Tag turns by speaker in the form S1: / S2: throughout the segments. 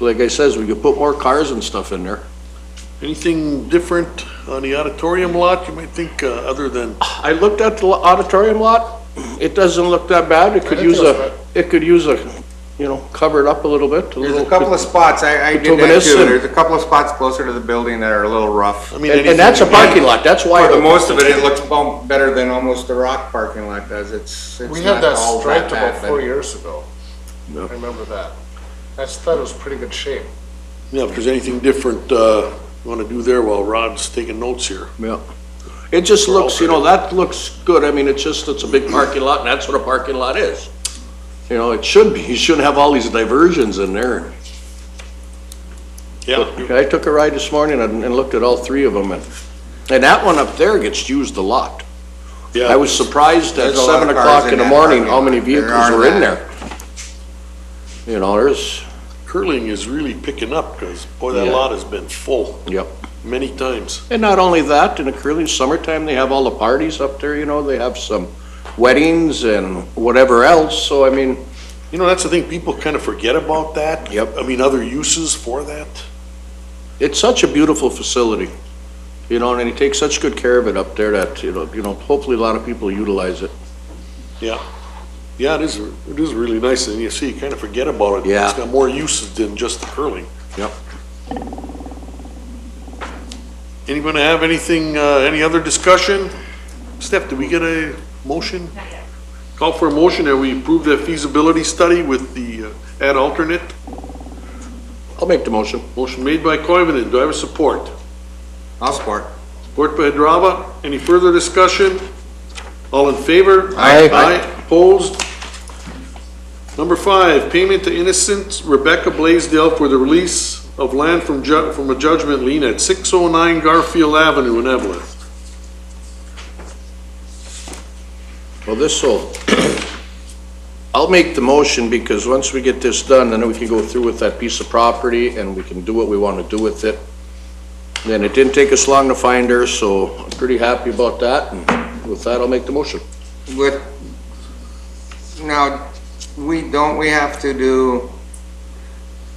S1: like I says, we could put more cars and stuff in there.
S2: Anything different on the auditorium lot, you might think, uh, other than,
S1: I looked at the lo- auditorium lot, it doesn't look that bad, it could
S2: I
S1: use
S2: think that's
S1: a, it could use a, you know, cover it up a little bit.
S3: There's a couple of spots, I, I did that
S1: Reminiscent.
S3: too, there's a couple of spots closer to the building that are a little rough.
S2: I
S3: For
S2: mean.
S1: And, and that's a
S2: anything-
S1: parking lot, that's why.
S3: the most of it, it looks bum- better than almost the rock parking lot does, it's, it's
S4: We had
S3: not
S4: that
S3: all that
S4: striped
S3: bad.
S4: about
S3: but-
S4: four years ago. I remember that. I thought it was pretty good shape.
S2: Yeah, if there's anything different, uh, you wanna do there while Rod's taking notes here.
S1: Yeah. It just looks, you know, that looks good, I mean, it's just, it's a big parking lot, and that's what a parking lot is. You know, it should be, you shouldn't have all these diversions in there.
S2: Yeah,
S1: I took a ride this morning and, and looked at all three of them, and, and that one up there gets used a lot.
S2: yeah.
S1: I was surprised at
S3: There's a lot
S1: seven
S3: of cars
S1: o'clock
S3: in
S1: in the
S3: that
S1: morning,
S3: parking
S1: how many
S3: lot. There
S1: vehicles
S3: are
S1: were in
S3: that.
S1: there. You know, there's,
S2: Curling is really picking up, cause boy, that
S1: Yeah.
S2: lot has been full
S1: yep.
S2: many times.
S1: And not only that, in the curly summertime, they have all the parties up there, you know, they have some weddings and whatever else, so I mean,
S2: You know, that's the thing, people kinda forget about that.
S1: Yep.
S2: I mean, other uses for that.
S1: it's such a beautiful facility, you know, and he takes such good care of it up there that, you know, you know, hopefully a lot of people utilize it.
S2: Yeah. Yeah, it is, it is really nice, and you see, you kinda forget about it.
S1: Yeah.
S2: It's got more uses than just the curling.
S1: Yep.
S2: Anybody have anything, uh, any other discussion? Steph, did we get a motion? Call for a motion that we approve the feasibility study with the uh, ad alternate.
S1: I'll make the motion.
S2: Motion made by Coivinon, do I have a support?
S3: I'll support.
S2: Support by Hadrava, any further discussion? All in favor?
S1: Aye.
S2: Aye, opposed? Number five, payment to innocent Rebecca Blaisdell for the release of land from ju, from a judgment lien at 609 Garfield Avenue in Evelyn.
S1: Well, this will, I'll make the motion because once we get this done, then we can go through with that piece of property and we can do what we want to do with it. And it didn't take us long to find her, so I'm pretty happy about that. And with that, I'll make the motion.
S3: With, now, we, don't we have to do,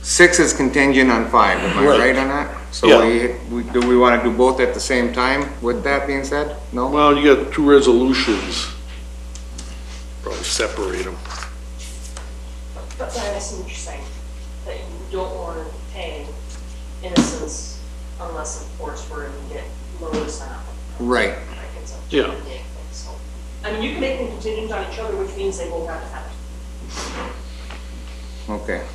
S3: six is contingent on five, am I
S2: Right.
S3: right on that? So
S2: Yeah.
S3: we, we, do we wanna do both at the same time, with that being said? No?
S2: Well, you got two resolutions. Probably separate them.
S5: But I see what you're saying, that you don't want to pay innocents unless of course we're going to get notice on it.
S3: Right.
S5: Like it's a
S2: Yeah.
S5: big thing, so. I mean, you can make them contingent on each other, which means they will have to have it.
S3: Okay.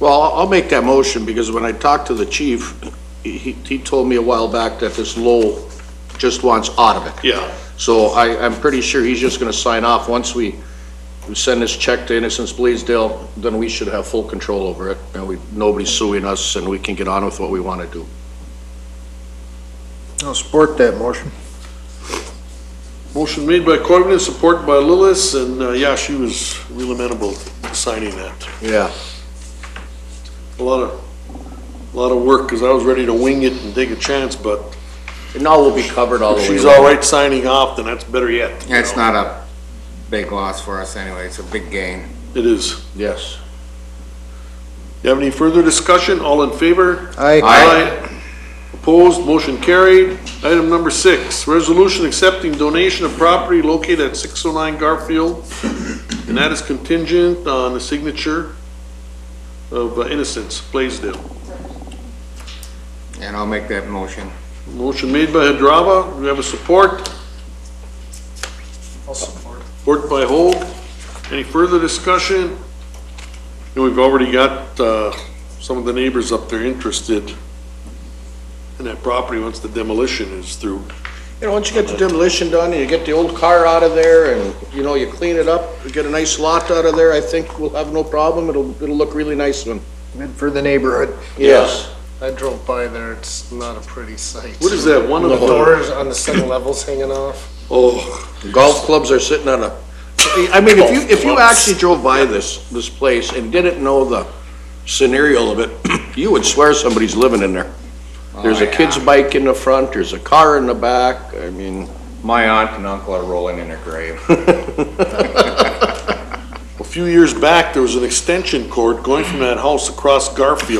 S1: Well, I'll I'll make that motion because when I talked to the chief, he, he he told me a while back that this Lowell just wants out of it.
S2: Yeah.
S1: So I, I'm pretty sure he's just gonna sign off. Once we, we send this check to Innocence Bleasdale, then we should have full control over it, and we, nobody's suing us, and we can get on with what we wanna do.
S4: I'll support that motion.
S2: Motion made by Coivinon, supported by Lillis, and, uh, yeah, she was real amenable to signing that.
S1: Yeah.
S2: A lot of, a lot of work, because I was ready to wing it and take a chance, but
S1: And now we'll be covered all the
S2: if
S1: way.
S2: she's
S1: around.
S2: all right signing off, then that's better yet.
S3: Yeah, It's not a big loss for us anyway, it's a big gain.
S2: It is.
S1: Yes.
S2: You have any further discussion? All in favor?
S4: Aye.
S3: Aye.
S2: Aye. Opposed, motion carried. Item number six, resolution accepting donation of property located at 609 Garfield, and that is contingent on the signature of uh, Innocence Blaisdell.
S3: And I'll make that motion.
S2: Motion made by Hadrava, Do we have a support?
S4: I'll support.
S2: Support by Holt. Any further discussion? And we've already got, uh, some of the neighbors up there interested in that property once the demolition is through.
S1: You know, once you get the demolition done, and you get the old car out of there, and, you know, you clean it up, you get a nice lot out of there, I think we'll have no problem. It'll, it'll look really nice when.
S4: Good for the neighborhood.
S1: Yes.
S4: I drove by there, it's not a pretty sight.
S2: What is that, one of
S4: The
S2: the?
S4: doors on the second level's hanging off.
S2: Oh,
S1: Golf clubs are sitting on a, I mean, if you, if you actually drove by this, this place and didn't know the scenario of it, you would swear somebody's living in there. There's a kid's bike in the front, there's a car in the back, I mean,
S3: My aunt and uncle are rolling in their grave.
S2: a few years back, there was an extension cord going from that house across Garfield